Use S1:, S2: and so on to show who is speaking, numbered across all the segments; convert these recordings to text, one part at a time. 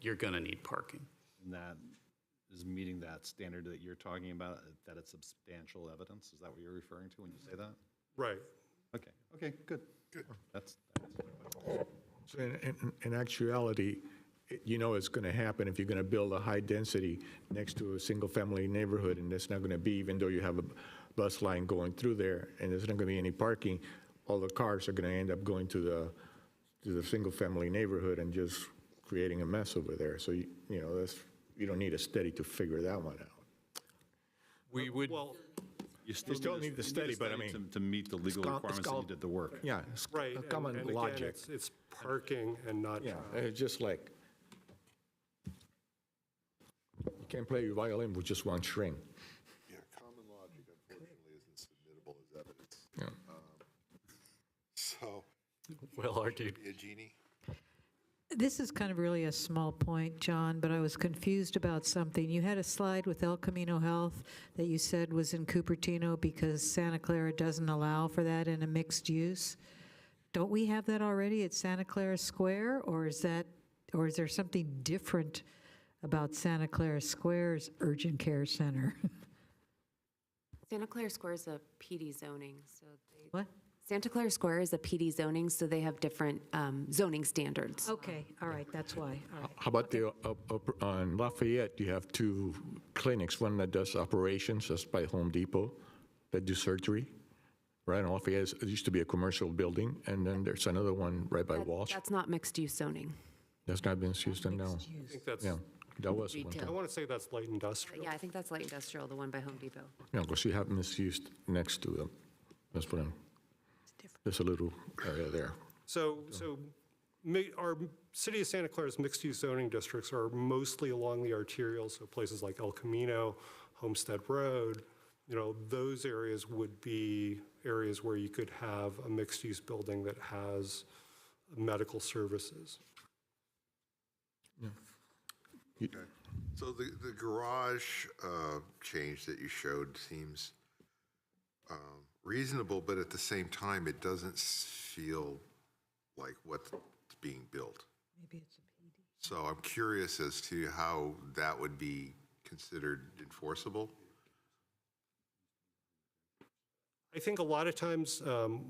S1: you're going to need parking.
S2: And that is meeting that standard that you're talking about, uh, that it's substantial evidence? Is that what you're referring to when you say that?
S3: Right.
S2: Okay, okay, good. Good. That's,
S4: So In, in- in actuality, it- you know it's going to happen if you're going to build a high density next to a single-family neighborhood, and it's not going to be, even though you have a bus line going through there, and there's not going to be any parking, all the cars are going to end up going to the, to the single-family neighborhood and just creating a mess over there. So, you you know, that's, you don't need a study to figure that one out.
S5: We would,
S3: Well,
S2: you still
S4: still
S2: a-
S4: need
S2: you a
S4: the study, but I
S2: study to-
S4: mean,
S2: To meet the legal
S4: cal-
S2: requirements
S4: it's
S2: that
S4: cal-
S2: you did the work.
S4: Yeah. it's
S3: right.
S4: a
S3: and-
S4: Common
S3: and again,
S4: logic.
S3: it's- It's parking and not
S4: Yeah,
S6: Uh,
S3: traffic.
S4: it's just like, you can't play your violin with just one string.
S6: Yeah, common logic unfortunately isn't submittable as evidence.
S4: Yeah.
S6: Um, So,
S1: Well argued.
S6: be a genie.
S7: This is kind of really a small point, John, but I was confused about something. You had a slide with El Camino Health that you said was in Cupertino because Santa Clara doesn't allow for that in a mixed use. Don't we have that already at Santa Clara Square, or is that, or is there something different about Santa Clara Square's urgent care center?
S8: Santa Clara Square is a PD zoning, so they,
S7: What?
S8: Santa Clara Square is a PD zoning, so they have different um, zoning standards.
S7: Okay, all right, that's why, all right.
S4: How about the, up- up- on Lafayette, you have two clinics, one that does operations, that's by Home Depot, that do surgery, right? And Lafayette, it used to be a commercial building, and then there's another one right by Walsh.
S8: That's not mixed-use zoning.
S4: That's not been used in now.
S3: I think that's,
S4: Yeah, that was one
S8: Retail.
S4: time.
S3: I want to say that's light
S8: But
S3: industrial.
S8: yeah, I think that's light industrial, the one by Home Depot.
S4: Yeah, because you have misused next to them. That's what I'm, there's a little area there.
S3: So, so mi- our city of Santa Clara's mixed-use zoning districts are mostly along the arterial, so places like El Camino, Homestead Road, you know, those areas would be areas where you could have a mixed-use building that has medical services.
S6: So the, the garage uh, change that you showed seems um, reasonable, but at the same time, it doesn't s- feel like what's being built. So I'm curious as to how that would be considered enforceable.
S3: I think a lot of times um,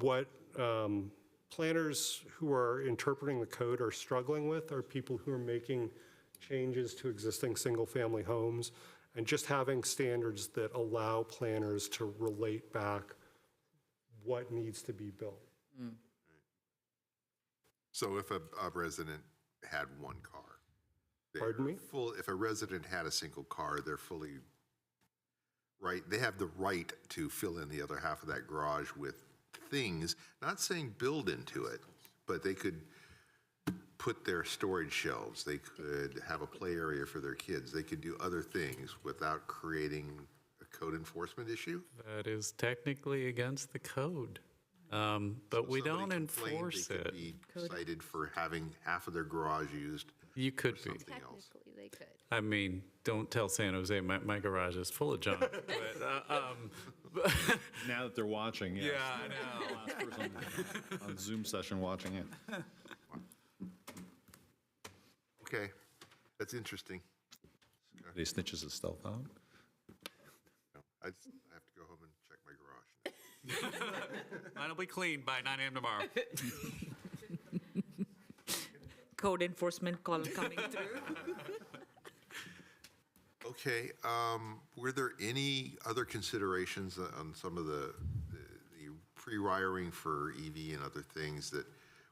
S3: what um, planners who are interpreting the code are struggling with are people who are making changes to existing single-family homes and just having standards that allow planners to relate back what needs to be built.
S6: So if a, a resident had one car. they're
S3: Pardon me?
S6: Full, if a resident had a single car, they're fully, right, they have the right to fill in the other half of that garage with things, not saying build into it, but they could put their storage shelves, they could have a play area for their kids, they could do other things without creating a code enforcement issue?
S1: That is technically against the code, um, but we
S6: Somebody
S1: don't
S6: complained
S1: enforce
S6: They
S1: it.
S6: could be cited for having half of their garage used
S1: You
S6: for
S1: could be.
S6: something else.
S9: Technically, they could.
S1: I mean, don't tell San Jose, my, my garage is full of junk. but, uh, um, but-
S2: Now that they're watching, yes.
S1: yeah, I know.
S2: Last person On Zoom session watching it.
S6: Okay, that's interesting.
S2: He snitches his stealth out.
S6: No, I just- I have to go home and check my garage.
S1: Mine'll be clean by 9 a.m. tomorrow.
S10: code enforcement call coming through.
S6: Okay, um, were there any other considerations on some of the, the- the pre-wiring for EV and other things that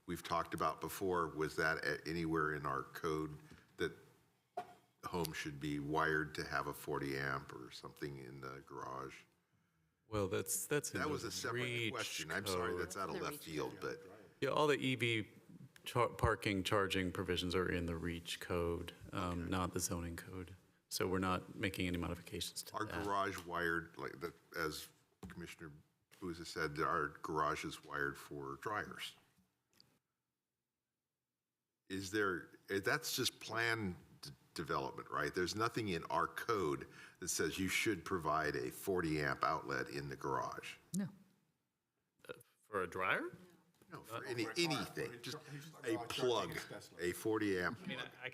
S6: we've talked about before? Was that at anywhere in our code that home should be wired to have a 40 amp or something in the garage?
S1: Well, that's, that's. in
S6: That
S1: the
S6: was a separate
S1: REACH
S6: question. I'm sorry,
S1: code.
S6: that's out of left field, but
S1: Yeah, all the EV char- parking, charging provisions are in the REACH code, um, not the zoning code. So we're not making any modifications to
S6: our
S1: that.
S6: garage wired, like, the- as Commissioner Buza said, our garage is wired for dryers. Is there, eh, that's just plan d- development, right? There's nothing in our code that says you should provide a 40-amp outlet in the garage.
S1: For a dryer?
S6: No, for any, anything, just a plug, a 40-amp
S1: I mean, I-